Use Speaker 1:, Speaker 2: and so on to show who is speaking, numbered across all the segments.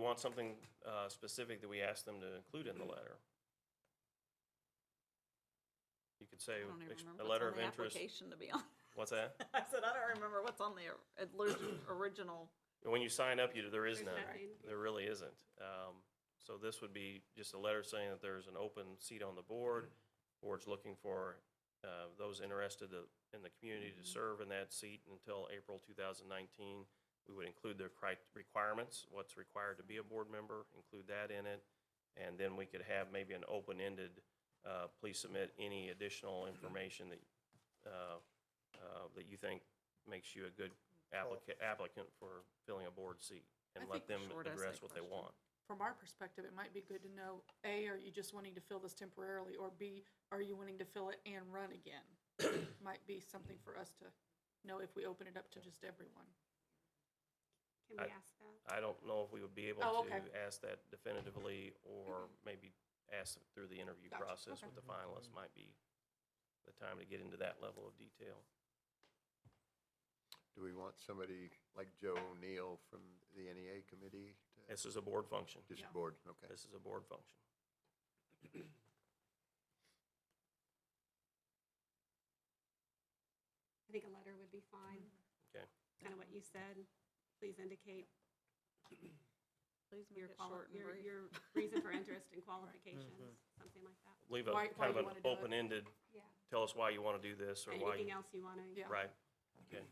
Speaker 1: want something uh, specific that we ask them to include in the letter. You could say,
Speaker 2: I don't even
Speaker 1: ex-
Speaker 2: remember
Speaker 1: a
Speaker 2: what's
Speaker 1: letter
Speaker 2: on
Speaker 1: of
Speaker 2: the
Speaker 1: interest,
Speaker 2: application, to be honest.
Speaker 1: what's that?
Speaker 2: I said, I don't remember what's on the or- origi- original.
Speaker 1: When you sign up, you, there is
Speaker 3: There's
Speaker 1: none.
Speaker 3: nothing.
Speaker 1: There really isn't. Um, So this would be just a letter saying that there's an open seat on the board. Board's looking for uh, those interested to- in the community to serve in that seat until April 2019. We would include their cri- requirements, what's required to be a board member, include that in it. And then we could have maybe an open-ended, uh, please submit any additional information that, uh, uh, that you think makes you a good applicant, applicant for filling a board seat. And
Speaker 2: I
Speaker 1: let
Speaker 2: think the
Speaker 1: them
Speaker 2: short essay
Speaker 1: address what they
Speaker 2: question.
Speaker 1: want.
Speaker 3: From our perspective, it might be good to know, A, are you just wanting to fill this temporarily, or B, are you wanting to fill it and run again? Might be something for us to know if we open it up to just everyone.
Speaker 4: Can
Speaker 1: I-
Speaker 4: we ask that?
Speaker 1: I don't know if we would be able
Speaker 3: Oh,
Speaker 1: to
Speaker 3: okay.
Speaker 1: ask that definitively, or maybe ask it through the interview
Speaker 3: Gotcha,
Speaker 1: process
Speaker 3: okay.
Speaker 1: with the finalists might be the time to get into that level of detail.
Speaker 5: Do we want somebody like Joe O'Neill from the NEA committee? to-
Speaker 1: This is a board function.
Speaker 5: Just
Speaker 3: Yeah.
Speaker 5: board, okay.
Speaker 1: This is a board function.
Speaker 4: I think a letter would be fine.
Speaker 5: Mm-hmm.
Speaker 1: Okay.
Speaker 4: Kind of what you said. Please indicate
Speaker 2: Please make
Speaker 4: your
Speaker 2: it
Speaker 4: quali,
Speaker 2: short and
Speaker 4: your,
Speaker 2: brief.
Speaker 4: your reason for interest and qualifications,
Speaker 5: Mm-hmm.
Speaker 4: something like that.
Speaker 1: Leave a
Speaker 3: Why- why
Speaker 1: kind of
Speaker 3: you
Speaker 1: an
Speaker 3: wanna do it?
Speaker 1: open-ended,
Speaker 4: Yeah.
Speaker 1: tell us why you want to do this or why,
Speaker 4: Anything
Speaker 1: you-
Speaker 4: else you want to?
Speaker 3: Yeah.
Speaker 1: right?
Speaker 2: Yeah.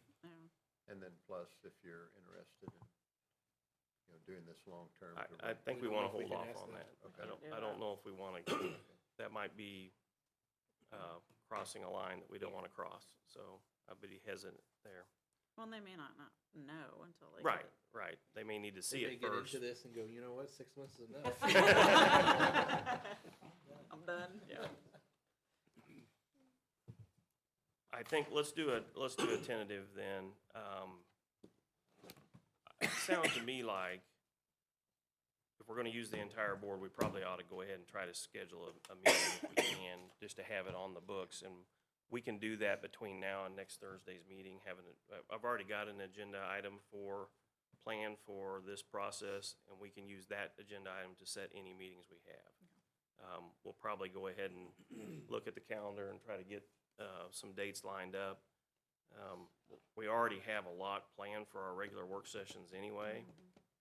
Speaker 5: And then plus, if you're interested in, you know, doing this long-term.
Speaker 1: I, I
Speaker 5: to run-
Speaker 1: think we
Speaker 6: We
Speaker 1: want to
Speaker 6: can- we
Speaker 1: hold
Speaker 6: can
Speaker 1: off
Speaker 6: ask
Speaker 1: on
Speaker 6: them.
Speaker 1: that. I
Speaker 5: Okay.
Speaker 1: don't, I don't know if we want to, that might be uh, crossing a line that we don't want to cross, so I'd be hesitant there.
Speaker 2: Well, and they may not, not know until they. get
Speaker 1: Right,
Speaker 2: it.
Speaker 1: right, they may need to
Speaker 6: They
Speaker 1: see
Speaker 6: may
Speaker 1: it
Speaker 6: get
Speaker 1: first.
Speaker 6: into this and go, you know what, six months is enough.
Speaker 2: I'm done.
Speaker 1: Yeah. I think, let's do a, let's do a tentative then. Um, It sounds to me like if we're gonna use the entire board, we probably ought to go ahead and try to schedule a, a meeting if we can, just to have it on the books. And we can do that between now and next Thursday's meeting, having, it- I- I've already got an agenda item for, plan for this process, and we can use that agenda item to set any meetings we have um, we'll probably go ahead and look at the calendar and try to get, uh, some dates lined up. Um, we already have a lot planned for our regular work sessions anyway,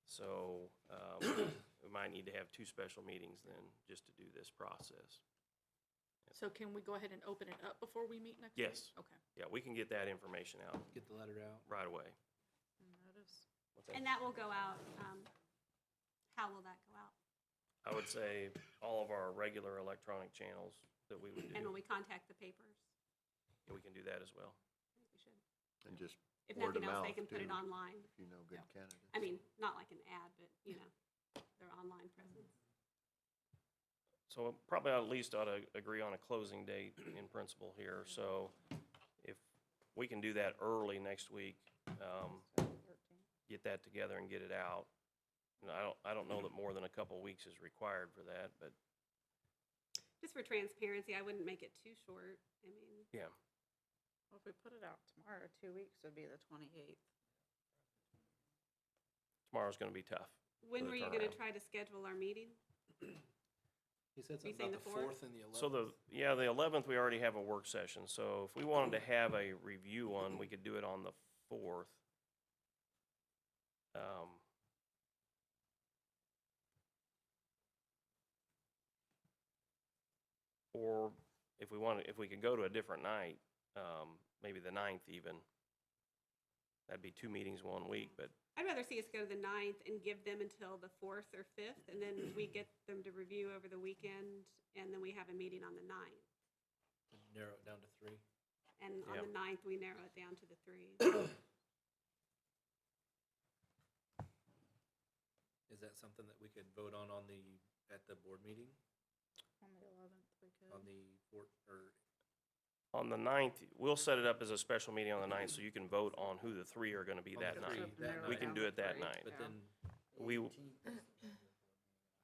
Speaker 1: so, um, we might need to have two special meetings then, just to do this process.
Speaker 3: So can we go ahead and open it up before we meet next week?
Speaker 1: Yes.
Speaker 3: Okay.
Speaker 1: Yeah, we can get that information out
Speaker 6: Get the letter out.
Speaker 1: right away.
Speaker 2: Notice.
Speaker 1: What's that?
Speaker 4: And that will go out, um, how will that go out?
Speaker 1: I would say all of our regular electronic channels that we would
Speaker 4: And
Speaker 1: do,
Speaker 4: will we contact the papers?
Speaker 1: we can do that as well.
Speaker 4: I think we should.
Speaker 5: And just,
Speaker 4: If
Speaker 5: Word
Speaker 4: nothing
Speaker 5: of
Speaker 4: else, they
Speaker 5: mouth,
Speaker 4: can put it
Speaker 5: too.
Speaker 4: online.
Speaker 5: if you know good candidates.
Speaker 4: I mean, not like an ad, but, you know, their online presence.
Speaker 1: So probably at least ought to agree on a closing date in principle here, so if we can do that early next week, um, get that together and get it out. And I don't, I don't know that more than a couple of weeks is required for that, but
Speaker 4: Just for transparency, I wouldn't make it too short. I mean,
Speaker 2: Well, if we put it out tomorrow, two weeks would be the twenty-eighth.
Speaker 1: tomorrow's gonna be tough.
Speaker 4: when
Speaker 1: the
Speaker 4: were you going to
Speaker 1: turnaround.
Speaker 4: try to schedule our meeting?
Speaker 6: He said
Speaker 4: You
Speaker 6: something
Speaker 4: saying
Speaker 6: about
Speaker 4: the
Speaker 6: the
Speaker 4: fourth?
Speaker 6: fourth and the eleventh.
Speaker 1: So the, yeah, the eleventh, we already have a work session, so if we wanted to have a review one, we could do it on the fourth. Um, Or if we wanted, if we could go to a different night, um, maybe the ninth even. That'd be two meetings one week, but
Speaker 4: I'd rather see us go to the ninth and give them until the fourth or fifth, and then we get them to review over the weekend, and then we have a meeting on the ninth.
Speaker 6: Narrow it down to three.
Speaker 4: And on
Speaker 1: Yep.
Speaker 4: the ninth, we narrow it down to the three.
Speaker 6: Is that something that we could vote on on the, at the board meeting,
Speaker 2: On the eleventh, we could.
Speaker 6: on the fourth, or
Speaker 1: on the ninth, we'll set it up as a special meeting on the ninth, so you can vote on who the three are gonna be
Speaker 6: On the
Speaker 1: that night.
Speaker 6: three. that
Speaker 1: We can do it that night.
Speaker 6: But then.
Speaker 1: We w-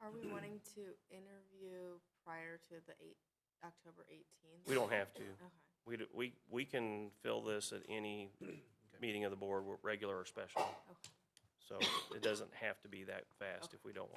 Speaker 7: Are we wanting to interview prior to the eight, October eighteenth?
Speaker 1: We don't have to.
Speaker 7: Okay.
Speaker 1: We, d- we, we can fill this at any meeting of the board, wh- regular or special. So it doesn't have to be that fast if we don't want